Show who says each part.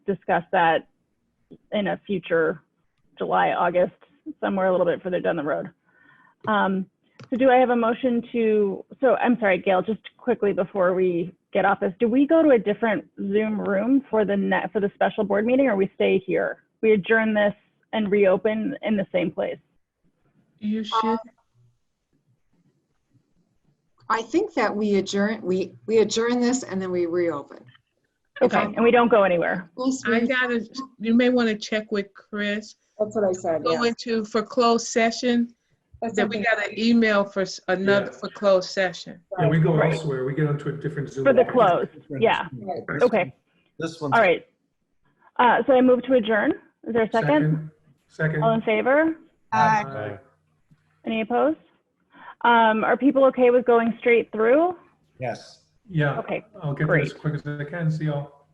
Speaker 1: discuss that in a future July, August, somewhere a little bit further down the road. Um, so do I have a motion to, so I'm sorry, Gail, just quickly before we get off this, do we go to a different Zoom room for the net, for the special board meeting or we stay here? We adjourn this and reopen in the same place?
Speaker 2: You should,
Speaker 3: I think that we adjourn, we, we adjourn this and then we reopen. If
Speaker 1: Okay,
Speaker 3: I'm-
Speaker 1: and we don't go anywhere?
Speaker 3: Unless we-
Speaker 2: I gotta, you may want to check with Chris.
Speaker 3: That's what I said,
Speaker 2: Go
Speaker 3: yeah.
Speaker 2: into for closed session,
Speaker 3: That's
Speaker 2: then we
Speaker 3: something-
Speaker 2: got an email for s- another
Speaker 4: Yeah.
Speaker 2: for closed session.
Speaker 4: Yeah, we go elsewhere, we get onto a different Zoom.
Speaker 1: For the close, yeah,
Speaker 3: Right.
Speaker 1: okay,
Speaker 5: This one's
Speaker 1: all right. Uh, so I move to adjourn. Is there a second? Oh,
Speaker 4: Second.
Speaker 1: All in favor?
Speaker 6: Aye.
Speaker 4: Aye.
Speaker 1: Any opposed? Um, are people okay with going straight through?
Speaker 5: Yes.
Speaker 4: Yeah,
Speaker 1: Okay,
Speaker 4: I'll get there
Speaker 1: Great.
Speaker 4: as quick as I can, see y'all.